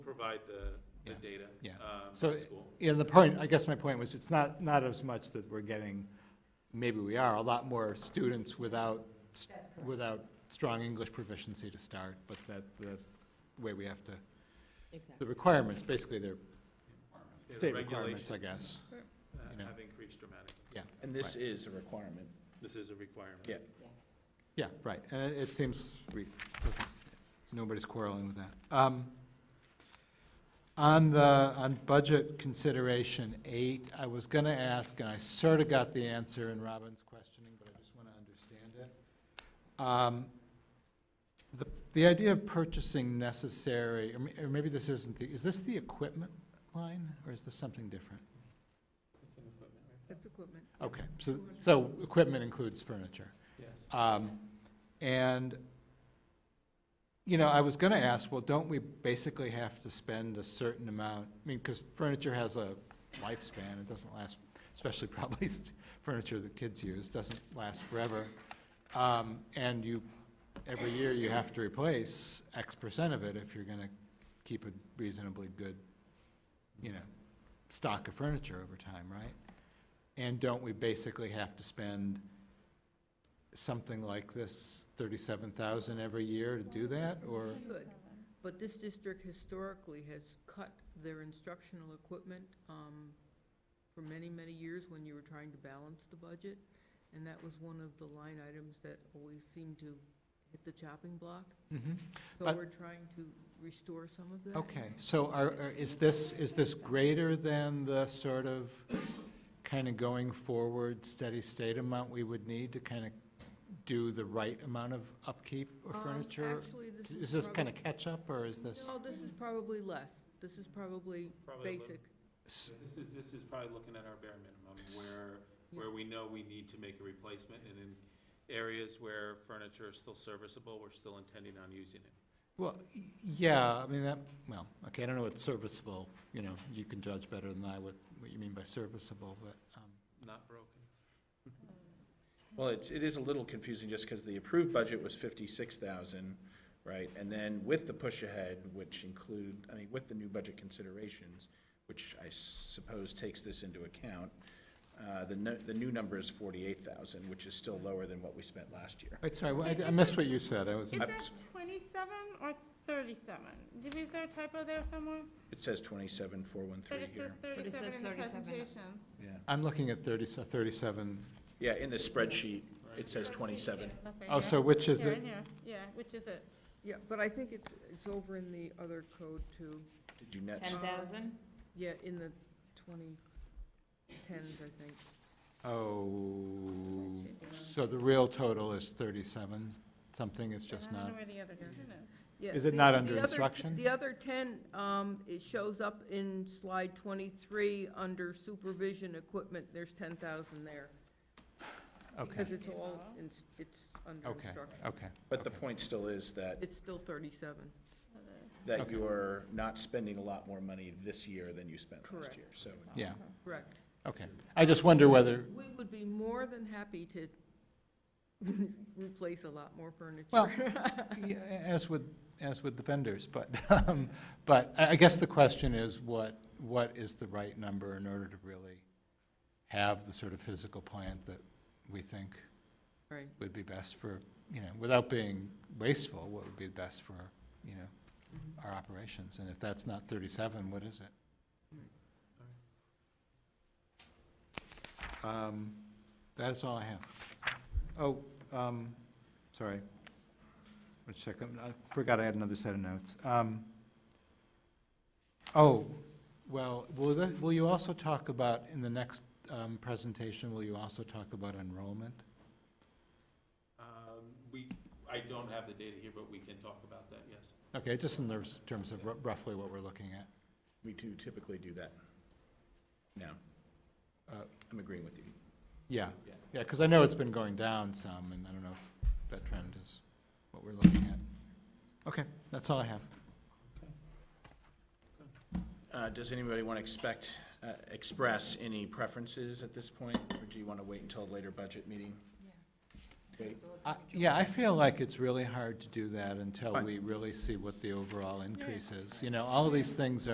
provide the, the Yeah, data. yeah. um, So, to the school. yeah, the point, I guess my point was, it's not, not as much that we're getting, maybe we are, a lot more students without, s- without strong English proficiency to start, but that, the way we have to, the Exactly. requirements, basically they're Yeah, the uh, state requirements, I regulations, guess. uh, you know. Have increased dramatically. And this is a requirement. This is a requirement. Yeah. Yeah, right, and it- it seems we, doesn't- nobody's quarreling with that. Um, On the, on budget consideration eight, I was gonna ask, and I sort of got the answer in Robin's questioning, but I just want to understand it. Um, The, the idea of purchasing necessary, or may- or maybe this isn't the, is this the equipment line, or is this something different? That's equipment. Okay, so, so equipment includes furniture. Yes. Um, And, you know, I was going to ask, well, don't we basically have to spend a certain amount? I mean, because furniture has a lifespan, it doesn't last, especially probably st- furniture that kids use, doesn't last forever. Um, And you, every year, you have to replace X percent of it if you're going to keep a reasonably good, you know, stock of furniture over time, right? And don't we basically have to spend something like this, thirty-seven thousand every year to do that, or? Good. But this district historically has cut their instructional equipment um, for many, many years when you were trying to balance the budget. And that was one of the line items that always seemed to hit the chopping block. So But- we're trying to restore some of that. Okay, so are, are- is this, is this greater than the sort of kind of going forward steady state amount we would need to kind of do the right amount of upkeep of Um, furniture? Actually, this is. Is this probab- kind of catch-up, or is this? No, this is probably less. This is probably Probably a little- basic. s- This is, this is probably looking at our bare minimum, where, where we know we need to make a replacement, and in areas where furniture is still serviceable, we're still intending on using it. Well, y- yeah, I mean, that, well, okay, I don't know what's serviceable, you know, you can judge better than I what, what you mean by serviceable, but, um, Not broken. Well, it's, it is a little confusing just because the approved budget was fifty-six thousand, right? And then with the push ahead, which include, I mean, with the new budget considerations, which I suppose takes this into account, uh, the, nu- the new number is forty-eight thousand, which is still lower than what we spent last year. wait, sorry, I- I missed what you said, I was. Is I- that twenty-seven or thirty-seven? Did- Is there a typo there somewhere? It says twenty-seven, four one three But it says here. it thirty-seven in says the 37. presentation. Yeah, I'm looking at uh, 30 so 37. yeah, in the spreadsheet, it says twenty-seven. Okay, Oh, yeah. so which is Here it? and here, yeah, which is it? Yeah, but I think it's, it's over in the other code too. Did you net, Ten thousand? Yeah, in the twenty tens, I think. Oh, so the real total is 37, something, it's just I don't not, know where the other two is. Yeah, Is it the- not the under other t- instruction? The other ten, um, it shows up in slide twenty-three, under supervision equipment, there's ten thousand there. okay, Because it's all, in- it's under okay, instruction. okay. but the okay. point still is that It's still thirty-seven. that Okay. you're not spending a lot more money this year than you spent last Correct. year, so. Yeah, Correct. okay. I just wonder whether, We would be more than happy to replace a lot more furniture. Well, yeah, as would, as would the vendors, but, um, but I I guess the question is, what, what is the right number in order to really have the sort of physical plant that we think Right. would be best for, you know, without being wasteful, what would be best for, you know, our operations? And if that's not thirty-seven, what is it? Um, That is all I have. Oh, um, sorry. One second, I forgot I had another set of notes. Um, Oh, well, will, the- will you also talk about, in the next, um, presentation, will you also talk about enrollment? Um, We, I don't have the data here, but we can talk about that, yes. Okay, just in those terms of ru- roughly what we're looking at. We do typically do that. No. Uh, I'm agreeing with you. Yeah, Yeah. yeah, because I know it's been going down some, and I don't know if that trend is what we're looking at. Okay, that's all I have. Uh, Does anybody want to expect, uh, express any preferences at this point, or do you want to wait until a later budget meeting? Wait. I- Yeah, I feel like it's really hard to do that until we really see what the overall increase is. You know, all of these things